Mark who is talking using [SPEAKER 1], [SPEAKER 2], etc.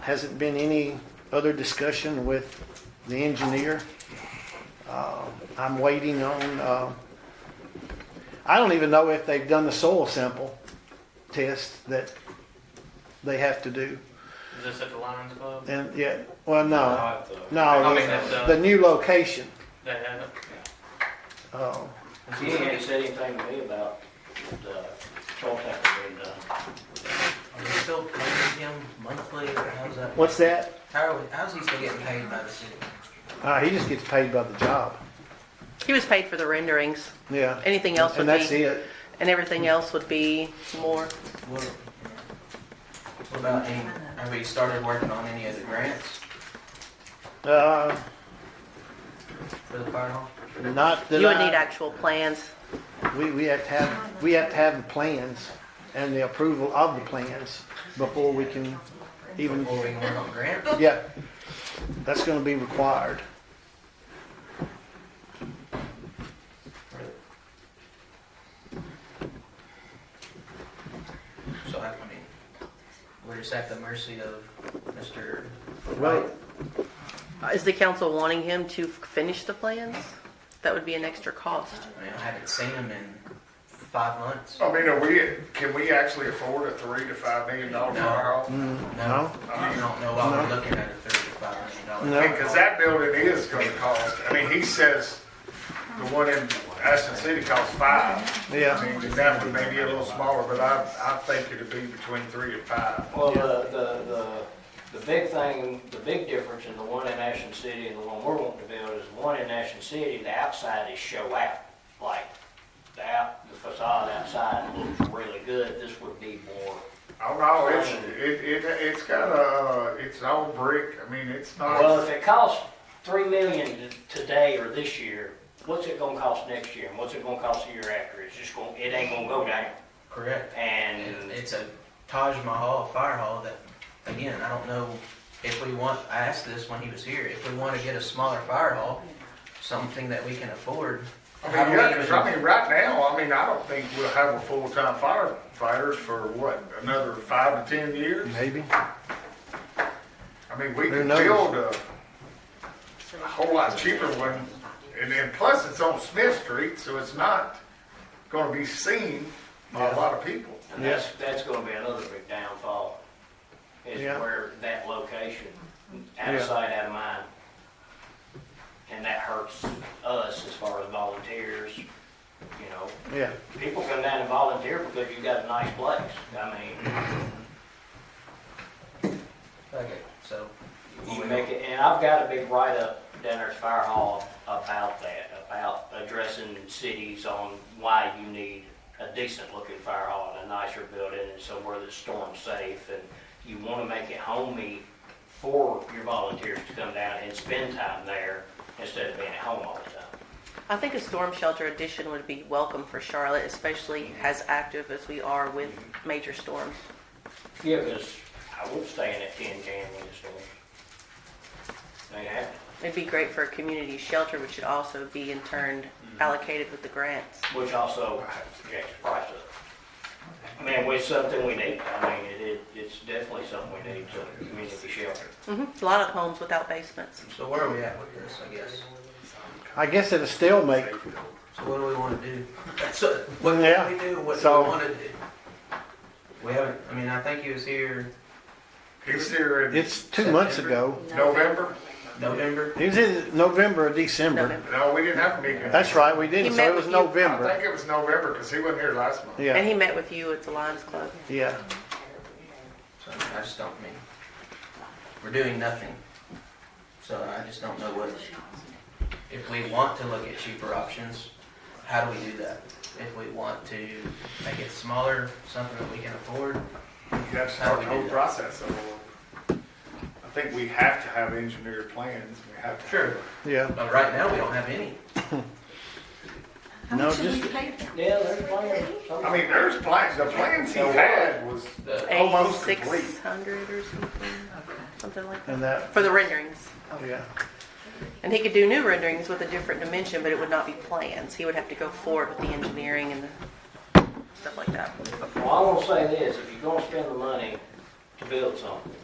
[SPEAKER 1] Hasn't been any other discussion with the engineer. Uh, I'm waiting on, uh, I don't even know if they've done the soil sample test that they have to do.
[SPEAKER 2] Is this at the Lions Club? Oh,
[SPEAKER 1] And yeah, well, no,
[SPEAKER 3] Not the-
[SPEAKER 2] I
[SPEAKER 1] no,
[SPEAKER 2] mean,
[SPEAKER 1] the-
[SPEAKER 2] that's, uh,
[SPEAKER 1] the new location.
[SPEAKER 2] they had it.
[SPEAKER 1] Uh,
[SPEAKER 3] He ain't said anything to me about the soil sample being done.
[SPEAKER 4] Are we still paying him monthly, or how's that?
[SPEAKER 1] What's that?
[SPEAKER 4] How are we, how's he still getting paid by the city?
[SPEAKER 1] Uh, He just gets paid by the job.
[SPEAKER 5] He was paid for the renderings.
[SPEAKER 1] Yeah.
[SPEAKER 5] Anything else would
[SPEAKER 1] And that's
[SPEAKER 5] be,
[SPEAKER 1] it.
[SPEAKER 5] and everything else would be more.
[SPEAKER 4] What, what about any, have we started working on any of the grants
[SPEAKER 1] Uh,
[SPEAKER 4] for the fire hall?
[SPEAKER 1] Not that
[SPEAKER 5] You would
[SPEAKER 1] I-
[SPEAKER 5] need actual plans.
[SPEAKER 1] We, we have to have, we have to have the plans and the approval of the plans before we can even,
[SPEAKER 4] Before we can work on grants?
[SPEAKER 1] yeah. That's gonna be required.
[SPEAKER 4] So I, I mean, we're just at the mercy of Mr.
[SPEAKER 1] Right.
[SPEAKER 5] Is the council wanting him to finish the plans? That would be an extra cost.
[SPEAKER 4] I mean, I haven't seen him in five months.
[SPEAKER 6] I mean, are we, can we actually afford a three to five million dollar
[SPEAKER 4] No.
[SPEAKER 6] fire hall?
[SPEAKER 1] No.
[SPEAKER 4] I don't know why we're looking at a thirty-five million dollar.
[SPEAKER 1] No.
[SPEAKER 6] Because that building is gonna cost, I mean, he says the one in Ashland City costs five. I
[SPEAKER 1] Yeah,
[SPEAKER 6] mean, that one may be a little smaller, but I, I think it'd be between three and five.
[SPEAKER 3] Well, the, the, the, the big thing, the big difference in the one in Ashen City and the one we're wanting to build is the one in Ashen City, the outside is show out. Like, the out, the facade outside looks really good, this would be more,
[SPEAKER 6] Oh, no, it's, it, it, it's got a, it's all brick, I mean, it's
[SPEAKER 3] well,
[SPEAKER 6] not,
[SPEAKER 3] if it costs three million t- today or this year, what's it gonna cost next year, and what's it gonna cost the year after, it's just gonna, it ain't gonna go down.
[SPEAKER 4] Correct. And
[SPEAKER 3] And
[SPEAKER 4] it's a Taj Mahal fire hall that, again, I don't know if we want, I asked this when he was here, if we want to get a smaller fire hall, something that we can afford.
[SPEAKER 6] I
[SPEAKER 4] how do
[SPEAKER 6] mean,
[SPEAKER 4] we
[SPEAKER 6] yeah, 'cause I
[SPEAKER 4] even-
[SPEAKER 6] mean, right now, I mean, I don't think we'll have a full-time firefighters for what, another five to ten years?
[SPEAKER 1] maybe.
[SPEAKER 6] I mean, we
[SPEAKER 1] Who
[SPEAKER 6] could
[SPEAKER 1] knows?
[SPEAKER 6] build a, a whole lot cheaper one, and then plus it's on Smith Street, so it's not gonna be seen by a lot of people.
[SPEAKER 3] And that's, that's gonna be another big downfall, is
[SPEAKER 1] Yeah.
[SPEAKER 3] where that location, out of
[SPEAKER 1] Yeah.
[SPEAKER 3] sight, out of mind. And that hurts us as far as volunteers, you know,
[SPEAKER 1] Yeah,
[SPEAKER 3] people come down and volunteer because you got a nice place, I mean,
[SPEAKER 4] Okay, so.
[SPEAKER 3] you make it, and I've got a big write-up down there at Fire Hall about that, about addressing cities on why you need a decent-looking fire hall and a nicer building and somewhere that's storm-safe, and you wanna make it homey for your volunteers to come down and spend time there instead of being at home all the time.
[SPEAKER 5] I think a storm shelter addition would be welcome for Charlotte, especially as active as we are with major storms.
[SPEAKER 3] Yeah, because I won't stay in that tin can when it's storm. Ain't happening.
[SPEAKER 5] It'd be great for a community shelter, which should also be in turn allocated with the grants.
[SPEAKER 3] which also jacks the price up. I mean, it's something we need, I mean, it, it, it's definitely something we need, so community shelter.
[SPEAKER 5] hmm A lot of homes without basements.
[SPEAKER 4] So where are we at with this, I guess?
[SPEAKER 1] I guess it'll still make,
[SPEAKER 4] So what do we want to do? So what
[SPEAKER 1] Yeah,
[SPEAKER 4] can we do? What do
[SPEAKER 1] so-
[SPEAKER 4] we want to do? We haven't, I mean, I think he was here
[SPEAKER 6] It's there in
[SPEAKER 1] it's two months ago.
[SPEAKER 6] November,
[SPEAKER 4] November.
[SPEAKER 1] It was in November or December.
[SPEAKER 5] November.
[SPEAKER 6] no, we didn't have a meeting.
[SPEAKER 1] That's right, we
[SPEAKER 5] He
[SPEAKER 1] didn't, so
[SPEAKER 5] met
[SPEAKER 1] it was
[SPEAKER 5] with you.
[SPEAKER 6] I
[SPEAKER 1] November.
[SPEAKER 6] think it was November, because he wasn't here last month.
[SPEAKER 5] And
[SPEAKER 1] Yeah,
[SPEAKER 5] he met with you at the Lions Club.
[SPEAKER 1] yeah.
[SPEAKER 4] So I just don't mean, we're doing nothing. So I just don't know what, if we want to look at cheaper options, how do we do that? If we want to make it smaller, something that we can afford,
[SPEAKER 6] You have to start the whole process over. I think we have to have engineered plans, we have to.
[SPEAKER 4] Sure.
[SPEAKER 1] Yeah,
[SPEAKER 4] but right now we don't have any.
[SPEAKER 7] How
[SPEAKER 1] No,
[SPEAKER 7] much did
[SPEAKER 1] just-
[SPEAKER 7] we pay them?
[SPEAKER 3] Yeah, there's plenty.
[SPEAKER 6] I mean, there's plans, the plans he had was
[SPEAKER 4] The-
[SPEAKER 6] almost complete.
[SPEAKER 5] Eighty-six hundred or something, something like that,
[SPEAKER 1] and that,
[SPEAKER 5] for the renderings.
[SPEAKER 1] yeah,
[SPEAKER 5] And he could do new renderings with a different dimension, but it would not be plans. He would have to go forward with the engineering and the stuff like that.
[SPEAKER 3] Well, I wanna say this, if you're gonna spend the money to build something,